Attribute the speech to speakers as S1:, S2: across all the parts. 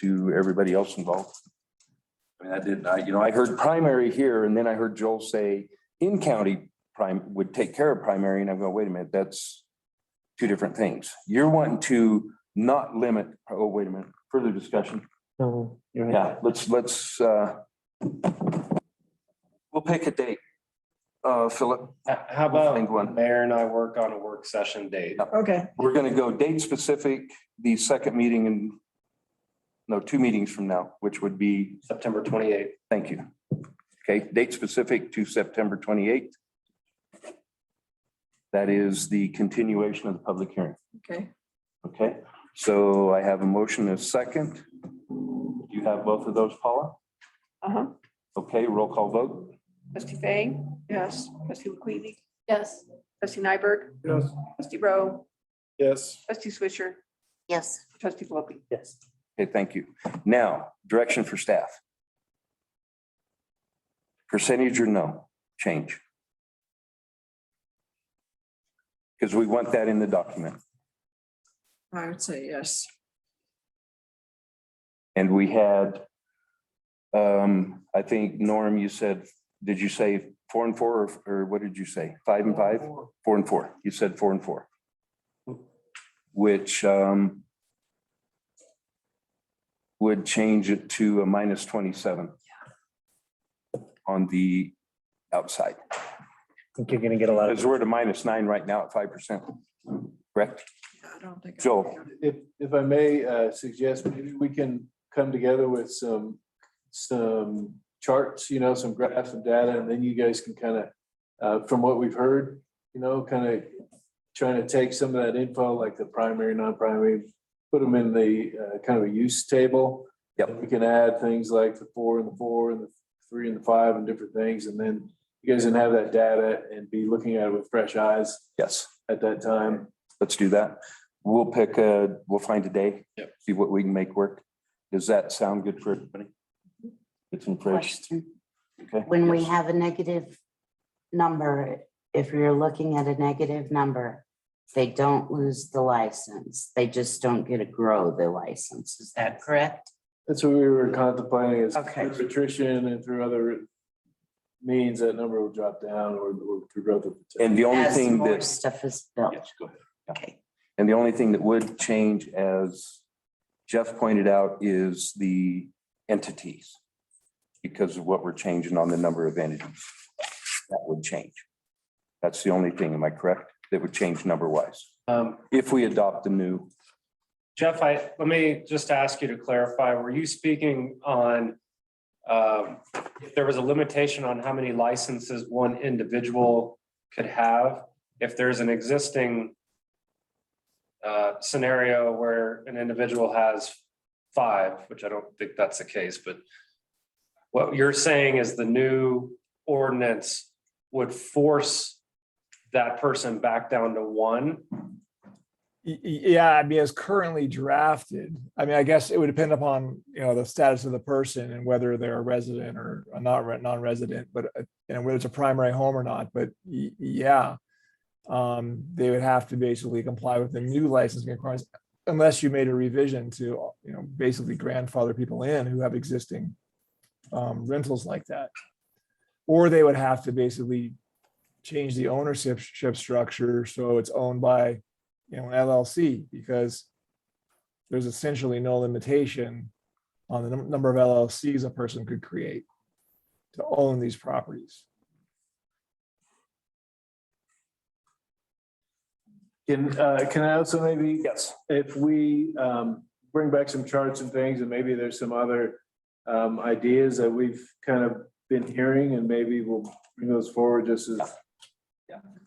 S1: to everybody else involved. I mean, I did, I, you know, I heard primary here and then I heard Joel say in county prime would take care of primary and I go, wait a minute, that's two different things. You're wanting to not limit, oh, wait a minute, further discussion.
S2: No, you're right.
S1: Yeah, let's, let's, uh, we'll pick a date. Uh, Philip,
S3: H- How
S1: We'll find one.
S3: about Mayor and I work on a work session date?
S4: Okay,
S1: we're gonna go date specific, the second meeting in, no, two meetings from now, which would be,
S3: September twenty-eighth.
S1: thank you. Okay, date specific to September twenty-eighth. That is the continuation of the public hearing,
S4: okay.
S1: okay? So I have a motion and a second. Do you have both of those, Paula?
S4: Uh-huh.
S1: Okay, roll call vote.
S4: Trustee Fang? Yes. Trustee McQueenie?
S5: Yes.
S4: Trustee Nyberg?
S3: Yes.
S4: Trustee Rowe?
S3: Yes.
S4: Trustee Swisher?
S5: Yes.
S4: Trustee Wilkie?
S2: Yes.
S1: Okay, thank you. Now, direction for staff. Percentage or no change? Because we want that in the document.
S4: I would say yes.
S1: And we had, um, I think, Norm, you said, did you say four and four or- or what did you say? Five and five? Four Hmm. and four. You said four and four. Which, um, would change it to a minus twenty-seven on the outside.
S2: Think you're gonna get a lot
S1: Because
S2: of,
S1: we're at a minus nine right now at five percent. Correct?
S4: Yeah, I don't think. I-
S1: Joel.
S6: If, if I may uh, suggest, maybe we can come together with some, some charts, you know, some graphs and data, and then you guys can kind of, from what we've heard, you know, kind of trying to take some of that info, like the primary, non-primary, put them in the uh, kind of a use table.
S1: Yep.
S6: We can add things like the four and the four and the three and the five and different things, and then you guys can have that data and be looking at it with fresh eyes
S1: Yes.
S6: at that time.
S1: Let's do that. We'll pick a, we'll find a day.
S3: Yep.
S1: See what we can make work. Does that sound good for everybody? It's in fresh.
S7: question.
S1: Okay.
S7: When we
S1: Yes.
S7: have a negative number, if you're looking at a negative number, they don't lose the license. They just don't get to grow the license. Is that correct?
S6: That's what we were contemplating is
S7: Okay.
S6: through attrition and through other means, that number will drop down or or through growth. of the-
S1: And the only
S7: As
S1: thing
S7: more
S1: that,
S7: stuff is built.
S1: Yes, go ahead.
S7: Okay.
S1: and the only thing that would change, as Jeff pointed out, is the entities. Because of what we're changing on the number of entities. That would change. That's the only thing, am I correct? That would change number wise,
S3: Um,
S1: if we adopt the new.
S3: Jeff, I, let me just ask you to clarify, were you speaking on um, if there was a limitation on how many licenses one individual could have? If there's an existing uh, scenario where an individual has five, which I don't think that's the case, but what you're saying is the new ordinance would force that person back down to one?
S8: Y- y- Yeah, I mean, as currently drafted, I mean, I guess it would depend upon, you know, the status of the person and whether they're a resident or a not re- non-resident, but uh, and whether it's a primary home or not, but y- yeah. Um, they would have to basically comply with the new licensing requirements unless you made a revision to, you know, basically grandfather people in who have existing um, rentals like that. Or they would have to basically change the ownership ship structure, so it's owned by you know, LLC because there's essentially no limitation on the num- number of LLCs a person could create to own these properties.
S6: Can, uh, can I also maybe,
S1: Yes.
S6: if we um, bring back some charts and things, and maybe there's some other um, ideas that we've kind of been hearing, and maybe we'll bring those forward just as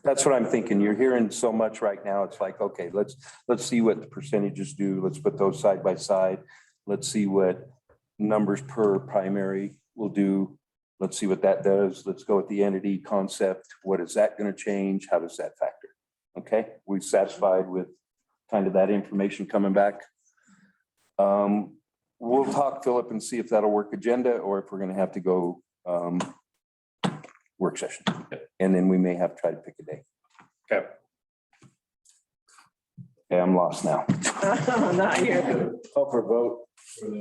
S1: That's what I'm thinking. You're hearing so much right now. It's like, okay, let's, let's see what the percentages do. Let's put those side by side. Let's see what numbers per primary will do. Let's see what that does. Let's go with the entity concept. What is that going to change? How does that factor? Okay, we satisfied with kind of that information coming back. Um, We'll talk, Philip, and see if that'll work agenda or if we're going to have to go um, work session. And then we may have to try to pick a day.
S3: Okay.
S1: Yeah, I'm lost now.
S4: Not here.
S6: call for a vote.